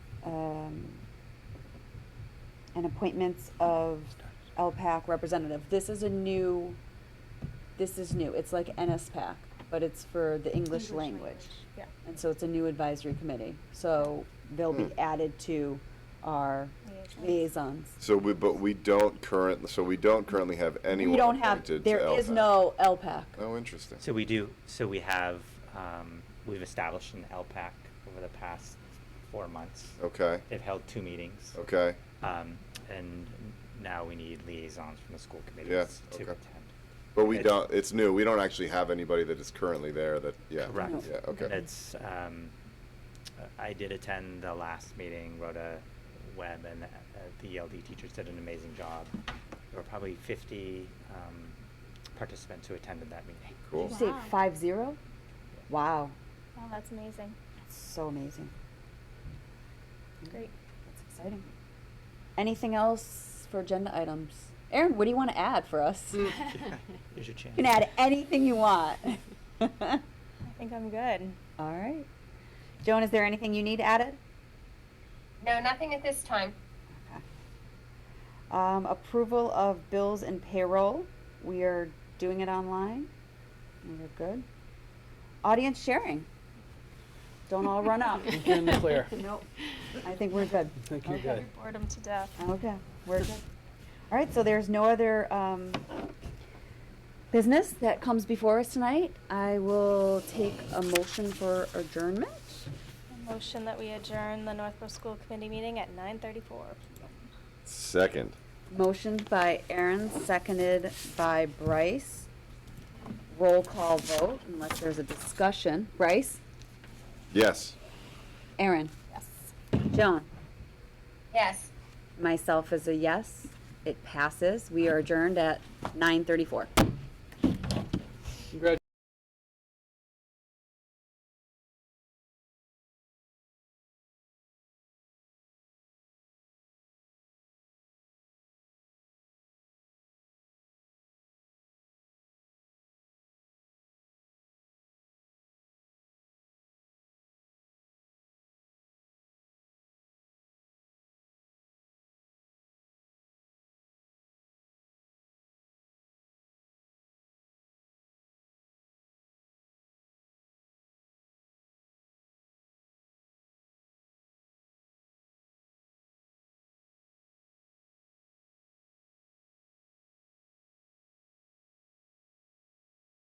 um, and appointments of LPAC representative. This is a new, this is new. It's like NSPAC, but it's for the English language. Yeah. And so it's a new advisory committee. So they'll be Hmm. added to our Liaisons. liaisons. So we, but we don't current, so we don't currently have anyone We don't have, appointed to there is LPAC. no LPAC. Oh, interesting. So we do, so we have, um, we've established an LPAC over the past four months. Okay, They've held two meetings. okay. Um, and now we need liaisons from the school committees Yes, to okay. attend. But we It's- don't, it's new. We don't actually have anybody that is currently there that, yeah. Correct. Yeah, okay. And it's, um, I did attend the last meeting, Rhoda Webb and uh, the ELD teachers did an amazing job. There were probably fifty, um, participants who attended that meeting. Cool. Did you say Wow. five zero? Wow, Wow, Oh, that's amazing. that's so amazing. Great. That's exciting. Anything else for agenda items? Aaron, what do you want to add for us? You Here's your chance. can add anything you want. All I think I'm good. right. Joan, is there anything you need added? No, nothing at this time. Um, approval of bills and payroll. We are doing it online. We're good. Audience sharing. Don't all run up. You're in the clear. Nope. I think we're good. Thank you, Okay. guys. Bored him to death. Okay, we're good. All right, so there's no other um, business that comes before us tonight. I will take a motion for adjournment. Motion that we adjourn the Northborough School Committee meeting at nine thirty-four. Second. Motion by Aaron, seconded by Bryce. Roll call vote unless there's a discussion. Bryce? Yes. Aaron? Yes. Joan? Yes. Myself is a yes. It passes. We are adjourned at 9:34.